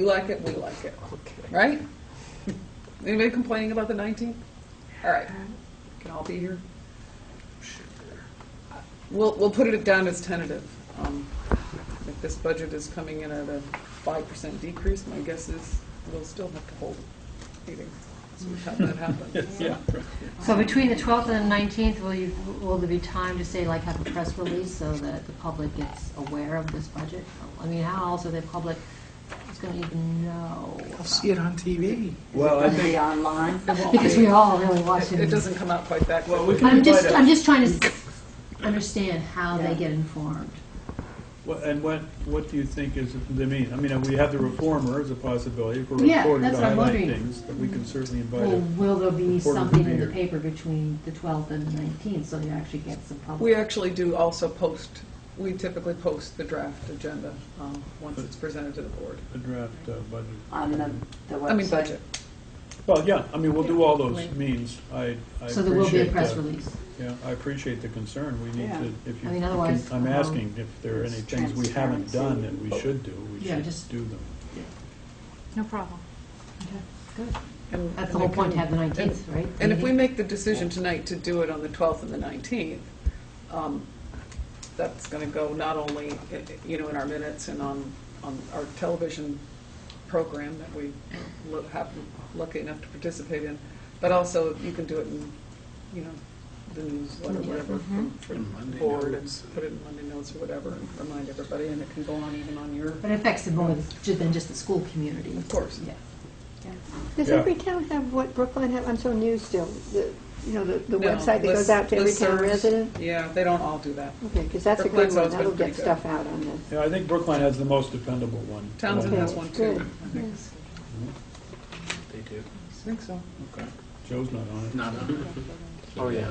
You like it, we like it, right? Anybody complaining about the 19th? All right, can all be here? We'll, we'll put it down as tentative. Um, If this budget is coming in at a 5% decrease, my guess is we'll still have to hold a meeting. So we have that happen. Yeah. So between the 12th and the 19th, will you, will there be time to say, like, have a press release so that the public gets aware of this budget? I mean, how else are the public is going to even know? I'll see it on TV. Well, I Will it be think, online? Because we all really watch It it it. doesn't come out quite that well, quickly. we can I'm invite just, I'm a, just trying to s- understand how they Yeah. get informed. what- and what, what do you think is the mean? I mean, we have the reformer as a possibility, if we're Yeah, reporting to that's what I'm highlight wondering. things, but we can certainly invite Well, a will there be Reporter would something be in the here. paper between the 12th and the 19th, so you actually get some We public? actually do also post, we typically post the draft agenda um, once it's presented to the board. a draft uh, budget. On the, the website? I mean, budget. Well, yeah, I mean, we'll do all those Right. means. I, I So there will be a appreciate press that. release. Yeah, I appreciate the concern. We need Yeah. to, if you, I mean, otherwise, I'm um, asking if there are any things we haven't done that we should do, we Yeah, should just- do them. No problem. Good. And- That's and the whole we point, to can- have the 19th, right? And if we Meeting? make the decision tonight to do it on the 12th and the 19th, um, that's going to go not only, i- i- you know, in our minutes and on, on our television program that we lo- have, lucky enough to participate in, but also you can do it in, you know, the newsletter, whatever, from- from the board, and put it in Monday notes or whatever, and remind everybody, and it can go on even on your, But it affects it more than just the school community. of course. Yeah. Does Yeah. every town have what Brookline have? I'm so new still, the, you know, the, the No, website that goes list- out to every town listservs, resident? Yeah, they don't all do that. Okay, because that's a Brookline's good one, always been that'll pretty get good. stuff out on this. Yeah, I think Brookline has the most dependable one. Townsend Okay, has one too. good. I think. Mm-hmm. They do. I think so. Joe's not on it. Not on. Oh, yeah.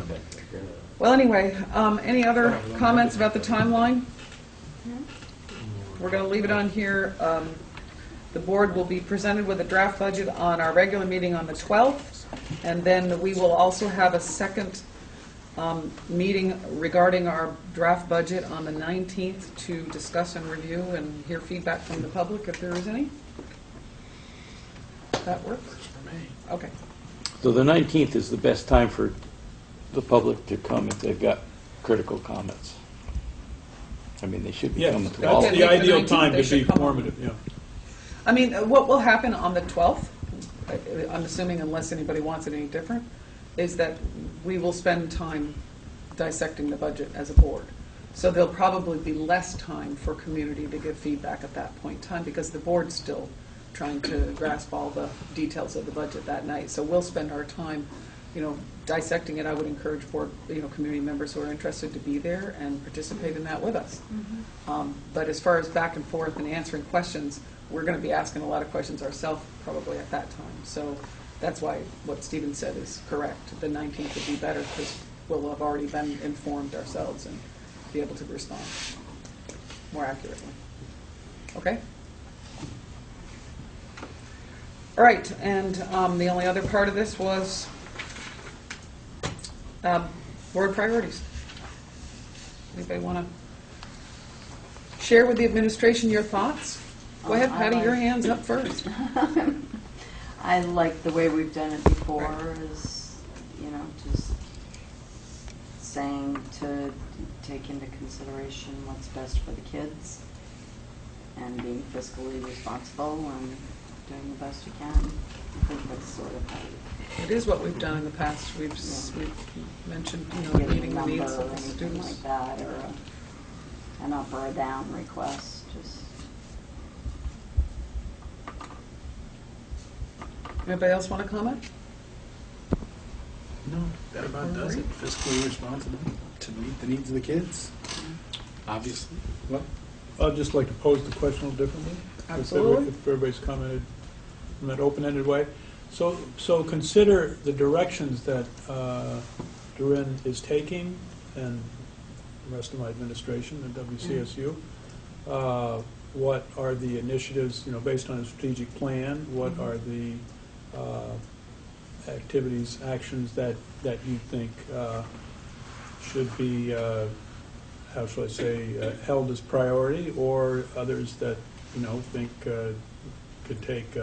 Well, anyway, um, any other comments about the timeline? We're going to leave it on here. Um, The board will be presented with a draft budget on our regular meeting on the 12th, and then we will also have a second um, meeting regarding our draft budget on the 19th to discuss and review and hear feedback from the public if there is any. That works? Okay. So the 19th is the best time for the public to come if they've got critical comments. I mean, they should be coming Yes, to all that's of the them. Okay. ideal time They to should be come on. formative, yeah. I mean, uh, what will happen on the 12th, uh, I'm assuming unless anybody wants it any different, is that we will spend time dissecting the budget as a board. So there'll probably be less time for community to give feedback at that point in time because the board's still trying to grasp all the details of the budget that night. So we'll spend our time, you know, dissecting it. I would encourage board, you know, community members who are interested to be there and participate in that with us. Um, But as far as back and forth and answering questions, we're going to be asking a lot of questions ourselves probably at that time. So that's why what Stephen said is correct. The 19th would be better because we'll have already been informed ourselves and be able to respond more accurately. Okay? All right, and um, the only other part of this was um, board priorities. Anybody want to share with the administration your thoughts. Go ahead, Um, I Patty, your like- hand's up first. I like the way we've done it before is, you know, just saying to take into consideration what's best for the kids and being fiscally responsible and doing the best you can. I think that's sort of how you It is what we've done in the past. We've, s- Yeah. we've mentioned, you know, give a meeting the number needs or of the anything like students. that or a- an up or a down request, just, Anybody else want to comment? No, that about does it. Fiscally responsible to meet the needs of the kids. Obviously. Well, I'd just like to pose the question a little differently. if everybody- Absolutely. If everybody's commented in that open-ended way. So, so consider the directions that uh, Durin is taking and the rest of my administration at WCSU. Uh, What are the initiatives, you know, based on a strategic plan? What are the uh, activities, actions that, that you think uh, should be uh, how shall I say, uh, held as priority, or others that, you know, think uh, could take